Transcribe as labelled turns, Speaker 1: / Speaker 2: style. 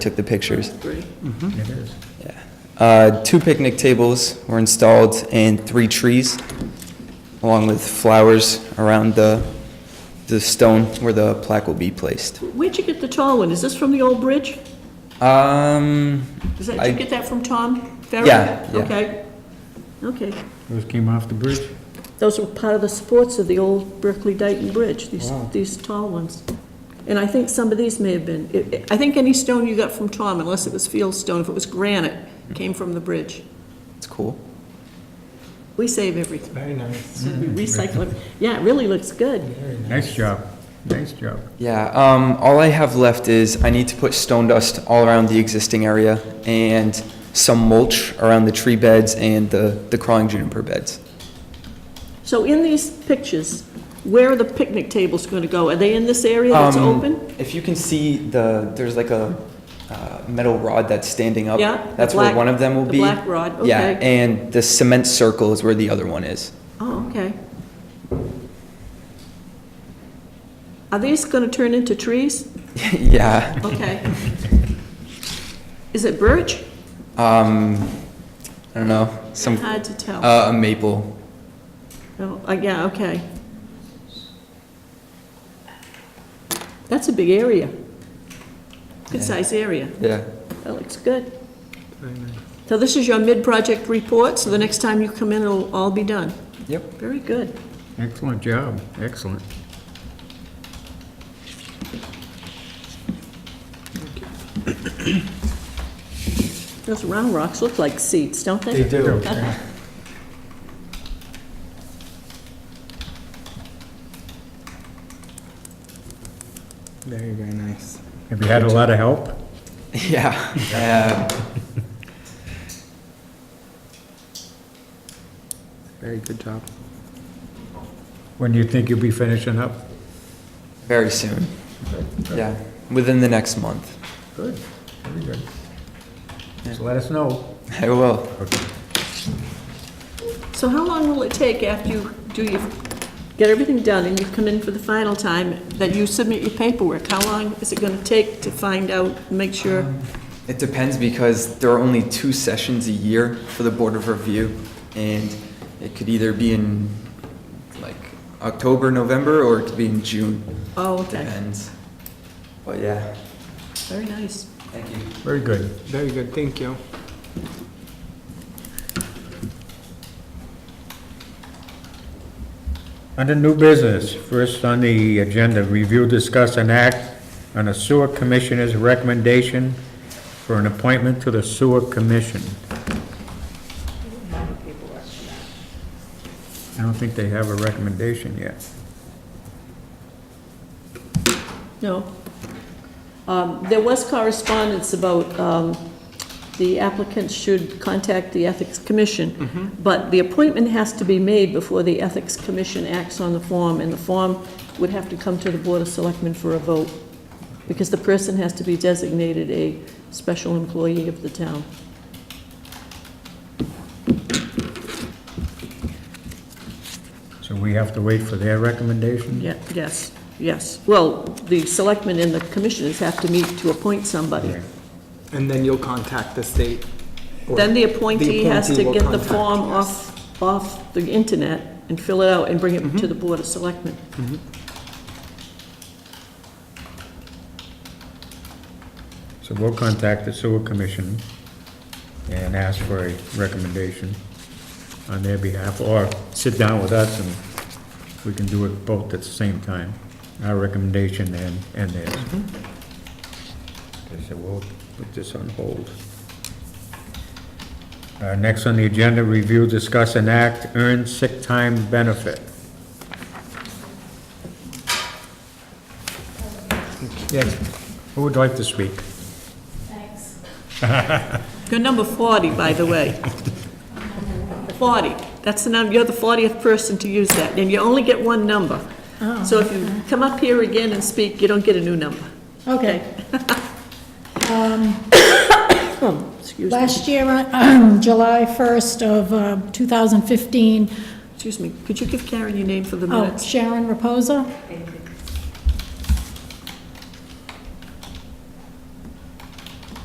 Speaker 1: took the pictures.
Speaker 2: Great.
Speaker 3: It is.
Speaker 1: Uh, Two picnic tables were installed and three trees, along with flowers around the, the stone where the plaque will be placed.
Speaker 2: Where'd you get the tall one? Is this from the old bridge?
Speaker 1: Um,
Speaker 2: Is that,
Speaker 1: I-
Speaker 2: did you get that from Tom Ferry?
Speaker 1: Yeah, yeah.
Speaker 2: Okay. Okay.
Speaker 3: Those came off the bridge?
Speaker 2: Those were part of the sports of the old Berkeley Dayton Bridge, these,
Speaker 3: Wow.
Speaker 2: these tall ones. And I think some of these may have been, it- it- I think any stone you got from Tom, unless it was fieldstone, if it was granite, came from the bridge.
Speaker 1: it's cool.
Speaker 2: We save everything.
Speaker 4: Very nice.
Speaker 2: We recycle it. Yeah, it really looks good.
Speaker 4: Very nice.
Speaker 3: Nice job, nice job.
Speaker 1: Yeah, um, all I have left is I need to put stone dust all around the existing area and some mulch around the tree beds and the, the crawling juniper beds.
Speaker 2: So in these pictures, where are the picnic tables going to go? Are they in this area that's
Speaker 1: Um,
Speaker 2: open?
Speaker 1: If you can see the, there's like a uh, metal rod that's standing up.
Speaker 2: Yeah, the
Speaker 1: That's where
Speaker 2: black-
Speaker 1: one of them will
Speaker 2: the
Speaker 1: be.
Speaker 2: black rod,
Speaker 1: Yeah,
Speaker 2: okay.
Speaker 1: and the cement circle is where the other one is.
Speaker 2: Oh, okay. Are these going to turn into trees?
Speaker 1: Yeah,
Speaker 2: Okay. Is it birch?
Speaker 1: um, I don't know, some,
Speaker 2: Hard to tell.
Speaker 1: uh, a maple.
Speaker 2: Oh, uh, yeah, okay. That's a big area. Good
Speaker 1: Yeah.
Speaker 2: size area.
Speaker 1: Yeah.
Speaker 2: That looks good.
Speaker 4: Very nice.
Speaker 2: So this is your mid-project report, so the next time you come in, it'll all be done.
Speaker 1: Yep.
Speaker 2: Very good.
Speaker 3: Excellent job, excellent.
Speaker 2: Those round rocks look like seats, don't they?
Speaker 3: do.
Speaker 4: Very, very nice.
Speaker 3: Have you had a lot of help?
Speaker 1: Yeah. uh, Yeah.
Speaker 4: Very good job.
Speaker 3: When do you think you'll be finishing up?
Speaker 1: Very soon. Yeah, within the next month.
Speaker 3: Good, very good. Just let us know.
Speaker 1: I will.
Speaker 2: So how long will it take after you do your, get everything done and you come in for the final time, that you submit your paperwork? How long is it gonna take to find out, make sure?
Speaker 1: Um, It depends because there are only two sessions a year for the Board of Review, and it could either be in like October, November, or it could be in June.
Speaker 2: Oh, okay,
Speaker 1: Depends. But yeah,
Speaker 2: very nice.
Speaker 1: thank you.
Speaker 3: Very good.
Speaker 4: Very good, thank you.
Speaker 3: Under new business, first on the agenda, review, discuss, and act on a sewer commissioner's recommendation for an appointment to the sewer commission. I don't think they have a recommendation yet.
Speaker 2: No. Um, There was correspondence about um, the applicant should contact the Ethics Commission, but the appointment has to be made before the Ethics Commission acts on the form, and the form would have to come to the Board of Selectmen for a vote, because the person has to be designated a special employee of the town.
Speaker 3: So we have to wait for their recommendation?
Speaker 2: Yeah, yes, yes. Well, the selectmen and the commissioners have to meet to appoint somebody.
Speaker 4: And then you'll contact the state. or-
Speaker 2: Then the appointee has to
Speaker 4: appointee will
Speaker 2: get the
Speaker 4: contact
Speaker 2: form
Speaker 4: us.
Speaker 2: off, off the internet and fill it out and bring
Speaker 4: Mm-hmm.
Speaker 2: it to the Board of Selectmen.
Speaker 3: So we'll contact the sewer commission and ask for a recommendation on their behalf, or sit down with us and we can do it both at the same time, our recommendation and, and theirs. Okay, so we'll put this on hold. Uh, next on the agenda, review, discuss, and act, earned sick time benefit. Yes, who would like to speak?
Speaker 5: Thanks.
Speaker 2: You're number 40, by the way. 40, that's the number, you're the 40th person to use that, and you only get one number.
Speaker 5: Oh,
Speaker 2: So if you come up here again and speak, you don't get a new number.
Speaker 5: Okay.
Speaker 2: Excuse me,
Speaker 5: Oh, Last year, on July 1st of uh, 2015,
Speaker 2: excuse me, could you give Karen your name for the
Speaker 5: oh,
Speaker 2: minutes?
Speaker 5: Sharon Reposa.